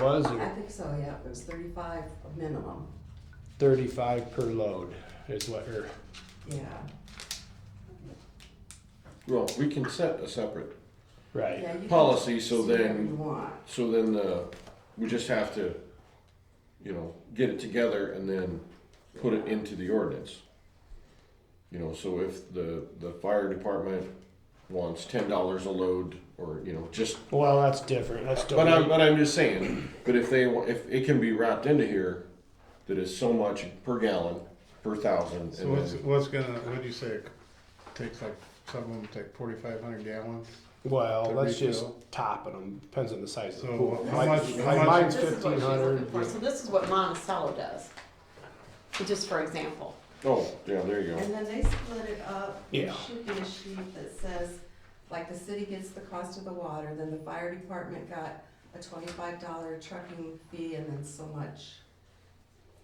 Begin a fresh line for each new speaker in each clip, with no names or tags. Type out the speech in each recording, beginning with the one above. Was
I
it
think so, yeah, it was thirty-five minimum,
thirty-five per load is what her,
yeah,
Well, we can set a separate
right,
yeah. you can
policy, so
see whatever you
then,
want,
so then, uh, we just have to, you know, get it together and then put it into the ordinance. You know, so if the, the fire department wants ten dollars a load, or, you know, just,
well, that's different, that's
but I'm,
different,
but I'm just saying, but if they, wa- if it can be wrapped into here, that is so much per gallon, per thousand,
So
and
what's,
then,
what's gonna, what'd you say, it takes like, some of them take forty-five hundred gallons?
well,
The
that's just
retail.
topping them, depends on the size of the
So
pool.
how
Mine-
much- how
mine-
much-
Mine's
This is what
fifteen
she's looking
hundred,
for, so this is what Monticello does, just for example.
oh, yeah, there you go.
and then they split it up, there
Yeah.
should be a sheet that says, like, the city gets the cost of the water, then the fire department got a twenty-five dollar trucking fee, and then so much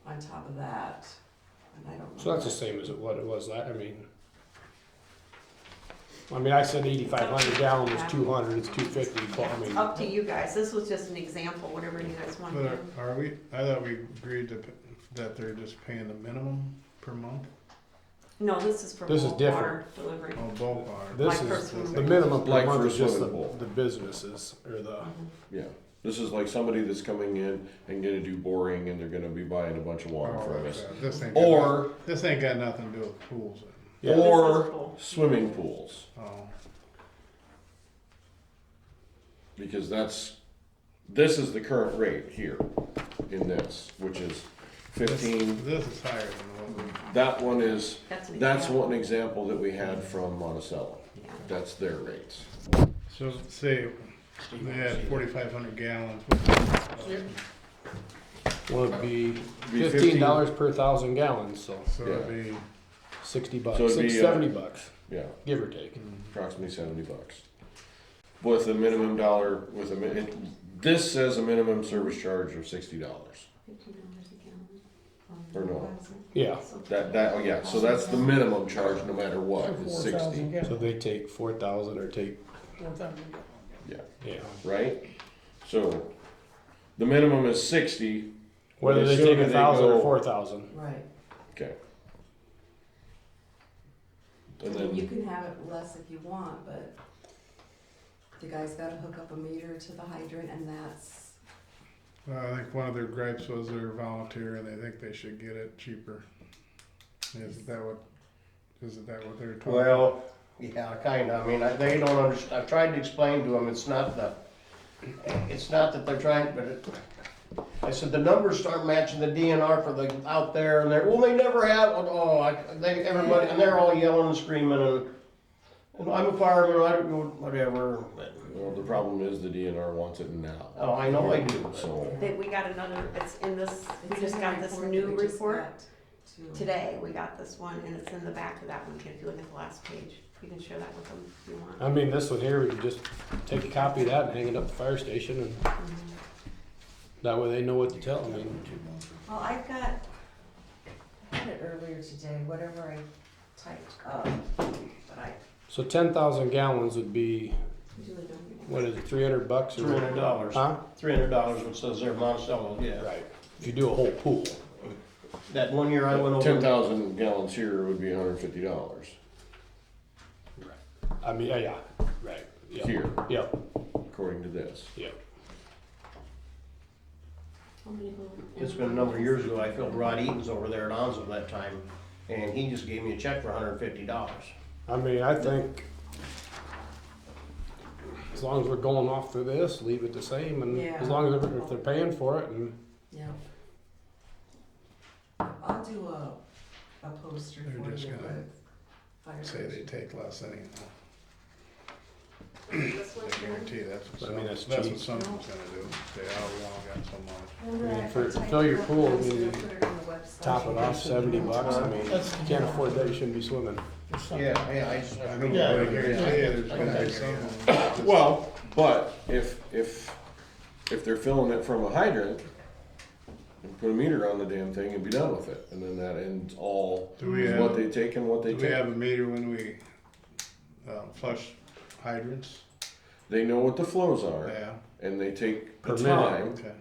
on top of that, and I don't know.
so that's the same as it- what it was, that, I mean. I mean, I said eighty-five hundred gallon was two hundred, it's two fifty, but I
It's
mean,
up to you guys, this was just an example, whatever you guys want to
But
do.
are, are we, I thought we agreed to, p- that they're just paying the minimum per month,
No, this is for
This is
bulk water delivery.
oh, both are.
this
Like
is,
for swimming
the minimum per
Like
month
for
is just the,
swimming pool.
the businesses, or the,
Yeah, this is like somebody that's coming in and gonna do boring and they're gonna be buying a bunch of water
Oh,
from
that's
us.
bad. This ain't. got noth-
Or,
This ain't got nothing to do with pools,
Yeah.
This is
or
cool.
swimming pools,
oh,
because that's, this is the current rate here in this, which is
this,
fifteen.
this is higher than what we,
That one is,
That's an
that's
example.
one example that we had from Monticello.
Yeah.
That's their rates.
so say, they had forty-five hundred gallons, what's
would be
Be
fifteen dollars per thousand gallons, so
it? so it'd be,
sixty bucks,
it'd be,
six,
uh,
seventy bucks,
Yeah,
give or take.
hmm.
approximately seventy bucks. With a minimum dollar, with a min, it- this says a minimum service charge of sixty dollars.
Fifteen dollars a gallon.
Or no.
Yeah,
So-
That, that, oh yeah, so that's the minimum charge no matter what, is sixty,
so they take four thousand or take,
yeah,
yeah.
right? So, the minimum is sixty,
Whether they
Assuming
take a
they
thousand or
go-
four thousand.
Right,
okay. And
and you
then,
can have it less if you want, but the guy's gotta hook up a meter to the hydrant, and that's
well, I think one of their gripes was they're volunteer and they think they should get it cheaper. Is that what, is that what they're talking?
Well, yeah, kinda, I mean, I- they don't underst I've tried to explain to them, it's not the, it's not that they're trying, but it, I said, the numbers start matching the DNR for the, out there, and they're, well, they never have, oh, oh, I, they, everybody, and they're all yelling and screaming, and, and I'm a fireman, I don't, know, whatever, but,
well, the problem is the DNR wants it now.
oh, I know I do, so.
So,
That we got another, it's in this, we
It's
just
in the
got this
report that
new
we just
report
got to-
today, we got this one, and it's in the back of that one, if you look at the last page, you can share that with them if you want.
I mean, this one here, we could just take a copy of that and hang it up at the fire station and that way they know what to tell, I mean.
Well, I've got, I had it earlier today, whatever I typed up, but I,
So ten thousand gallons would be,
Julie, don't you?
what is it, three hundred bucks or?
Three hundred dollars,
Huh?
three hundred dollars, it says there, Monticello, yeah,
Right, if you do a whole pool,
that one year I went over.
ten thousand gallons here would be hundred and fifty dollars
I mean, yeah, yeah, right, yeah,
here,
yeah,
according to this.
yeah.
How many will-
It's been a number of years ago, I filled Rod Eaton's over there at Onzo that time, and he just gave me a check for hundred and fifty dollars.
I mean, I think as long as we're going off for this, leave it the same, and as
Yeah.
long as they're, if they're paying for it, and
yeah. I'll do a, a poster
They're
for
just
you
gonna
with fire
Say
station.
they take less anyhow.
This one's
I
here.
guarantee that's what
I mean,
some,
that's
that's what
cheap.
some of them's gonna do. They all along got so much.
Remember
I mean,
I
for- to
typed
fill your
up
pool, I
those,
mean,
we'll put it on the website.
top it off seventy bucks, I mean, if you can't afford that, you shouldn't be swimming.
Yeah, yeah, I just.
I don't
Yeah,
know, I guarantee there's
I
gonna be
guarantee
some.
you.
of them just-
Well, but if, if, if they're filling it from a hydrant, and put a meter on the damn thing and be done with it, and then that ends all,
Do we
what
have,
they take and what they
do we have
take.
a meter when we, uh, flush hydrants?
They know what the flows are,
Yeah,
and they take the
Per minute.
time
okay.